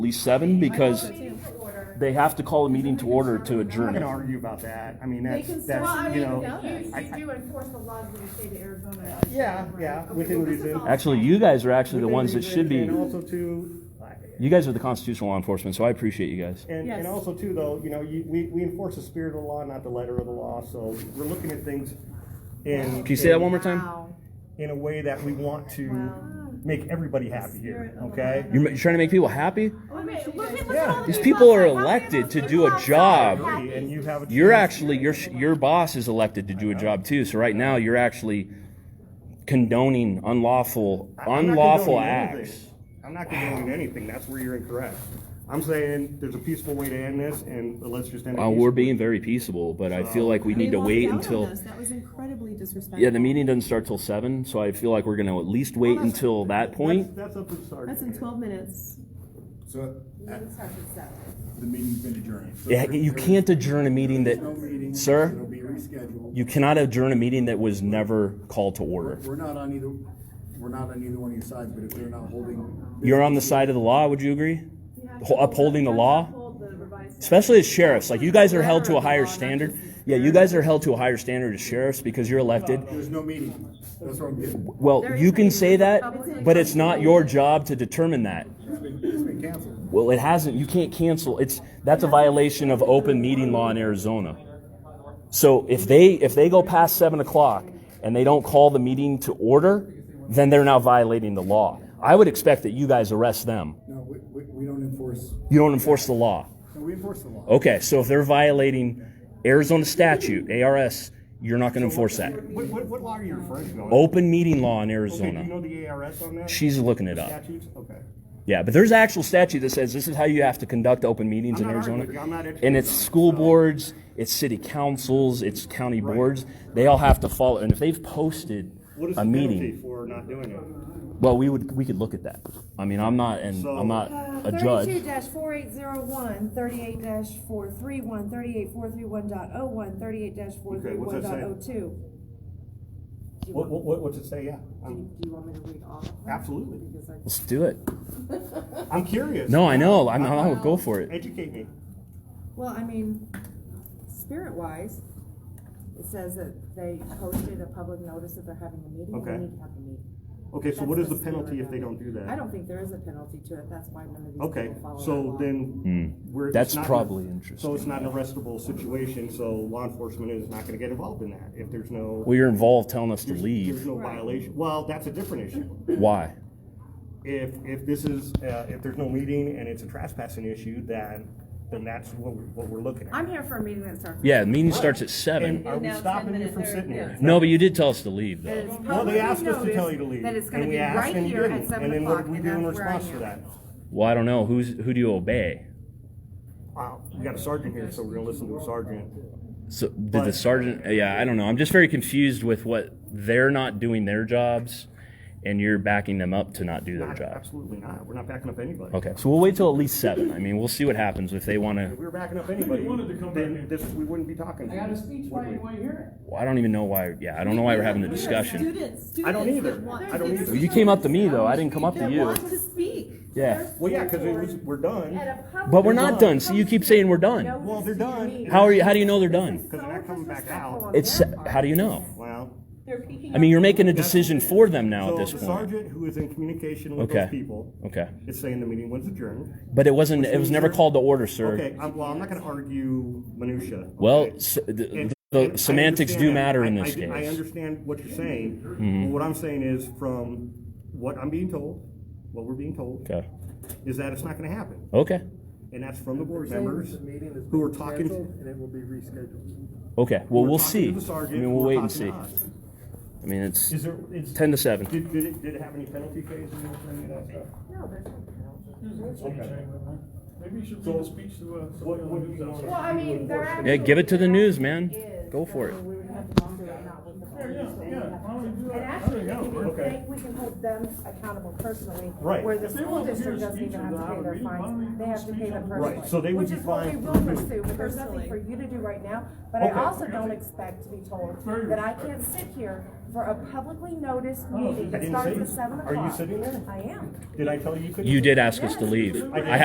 be seven because they have to call a meeting to order to I'm not adjourn gonna it. argue about that. I mean, They that's, can still, I that's, you mean, know. you, I- you I- do enforce the laws of the state of Arizona. Yeah, right? yeah, Okay, within well, this is reason. all- Actually, you guys are actually the within ones that reason, should be, And also too, I- you guys are the constitutional law enforcement, so I appreciate you guys. and, Yes. and also too, though, you know, you, we, we enforce the spirit of the law, not the letter of the law, so we're looking at things in. Can you say that in- one more time? Wow. In a way that we want to Wow. make everybody happy here, okay? You're ma- you're trying to make people happy? Look at- look at Yeah. what's all These the people are outside. How many of elected those to people do a outside job. are happy? And you have. a- You're actually, your, sh- your boss is elected to do a job too, so right now you're actually condoning unlawful, I'm not unlawful condoning acts. anything. I'm not condoning anything, that's where you're incorrect. I'm saying there's a peaceful way to end this, and let's just end it. Uh, we're peacefully. being very peaceable, but I feel like we need to walked wait out on until, us. That was incredibly disrespectful. yeah, the meeting doesn't start till seven, so I feel like we're gonna at least wait That's- until that that's- point. That's up to the sergeant. That's in twelve minutes. So uh, It starts at seven. the meeting's been adjourned. So Yeah, there- You there is can't adjourn a meeting that, No meeting. Sir? It'll be rescheduled. you cannot adjourn a meeting that was never called to order. We're not on either, we're not on either one of your sides, but if they're not holding. You're on the side of the law, would you agree? Ho- Upholding the law? Especially as sheriffs, like you guys are held to a higher standard. Yeah, you guys are held to a higher standard as sheriffs because you're elected. There's no meeting. That's what I'm getting. Well, you can say that, but it's not your job to determine that. It's been, it's been canceled. Well, it hasn't. You can't cancel. It's that's a violation of open meeting law in Arizona. So if they if they go past seven o'clock and they don't call the meeting to order, then they're now violating the law. I would expect that you guys arrest them. No, we, we, we don't enforce, You don't enforce the law. no, we enforce the law. Okay, so if they're violating Arizona statute ARS, you're not going to enforce that. What, what, what law are you referring to? Open meeting law in Okay, do you Oh, Arizona. know the ARS on that? She's looking it up. Statutes, okay. Yeah, but there's an actual statute that says this is how you have to conduct open meetings I'm in not arguing Arizona. with you. I'm not educated and it's on it, school so- boards, it's city councils, it's county Right. boards. They all have to follow. And if they've posted What is the a penalty meeting, for not doing it? well, we would we could look at that. I mean, I'm not and So- I'm not Uh, a judge. Thirty-two dash four eight zero one, thirty-eight dash four three one, thirty-eight four three one dot oh one, thirty-eight dash four three Okay, what's one that dot say? oh two. What, what- what, what's it say, yeah? I'm- Do you want me to read all of them? Absolutely. Because I- Let's do it. I'm curious. No, I know. I'm not. I'll go for it. Educate me. Well, I mean, spirit wise, it says that they posted a public notice that they're having a meeting, and Okay. they need to have a meeting. Okay, so That's what is the spirit penalty if of they it. don't do I that? don't think there is a penalty to it, that's why none of these Okay, people follow that so law. then, we're. it's Hmm. That's not- probably So it's interesting. not an arrestable situation, so law enforcement is not gonna get involved in that if there's no, Well, you're involved telling us to there's leave. there's no violation. Well, that's a different issue. Why? if, if this is, uh, if there's no meeting and it's a trespassing issue, then, then that's what, we're- what we're looking at. I'm here for a meeting that starts. Yeah, meeting starts at And seven. are we Now it's stopping 10 you from minutes, sitting there- here? No, but you did tell us to leave That though. it's Well, they publicly asked us to noticed tell you to leave. That it's gonna and we be asked, right and you here at didn't. seven And then what o'clock, do we and do in that's where I response to am. that? Well, I don't know. Who's who do you obey? Wow, we got a sergeant here, so we're gonna listen to a sergeant. So did the But- sergeant? uh, Yeah, I don't know. I'm just very confused with what they're not doing their jobs, and you're backing them up to not do their Not- jobs. Absolutely not. We're not backing up anybody. Okay, so we'll wait till at least seven. I mean, we'll see what happens if they want If to. we were backing up anybody, wanted to come then back. this, we wouldn't be talking. I got a speech, why do you want to hear it? Well, I don't even know why. Yeah, I don't know why we're having the We have discussion. Students, students. I don't either. that want- I don't either. You came up to me though. I didn't come up to That you. want to speak. Yeah, Well, yeah, cause it was, we're At done. a public but we're not done. done. See, you keep saying we're No, done. Well, they're done. How are you? How do you know they're done? Cause they're not coming back out. It's how do you know? Well. They're picking I mean, up- you're making a decision for them now So at this the point. sergeant who is in communication with Okay. those people Okay, is saying the meeting was adjourned. but it wasn't. It was never called to order, sir. Okay, I'm, well, I'm not going to argue minutia. Well, okay? s- the, And- and I the semantics do understand matter that. in I- I this do- I case. Mm-hmm. understand what you're saying. But What I'm saying is, from what I'm being told, what we're being told, Okay. is that it's not going to happen, Okay. and that's from the board members who are talking. And it will be rescheduled. Okay. who Well, are we'll talking see. to I the sergeant, mean, who we'll are wait and talking see. to us. I mean, it's Is there is ten to seven. Did, did it did it have any penalty phase in any of that stuff? Maybe you should read the speech to, uh. What, what do you know? Well, I mean, they're actually. Yeah, give it to the news, man. Go for it. We would have to do it, not with the Yeah, yeah, police. yeah, why don't we do And that? There actually, we you go. can, Okay. they- we can hold them accountable personally. Right. Where the If they school want to hear district a doesn't speech even on have to pay the their Halloween, why fines, don't we they do have to pay them speech on the- personally. Right, so they would be fined Which is what we will for pursue, but there's nothing for you to do right now, but I Okay. also don't expect to be told Very that I respectful. can't sit here for a publicly noticed I meeting that Oh, didn't starts say- at seven are o'clock. you sitting there? I am. Did I tell you you couldn't? You did ask us to leave. I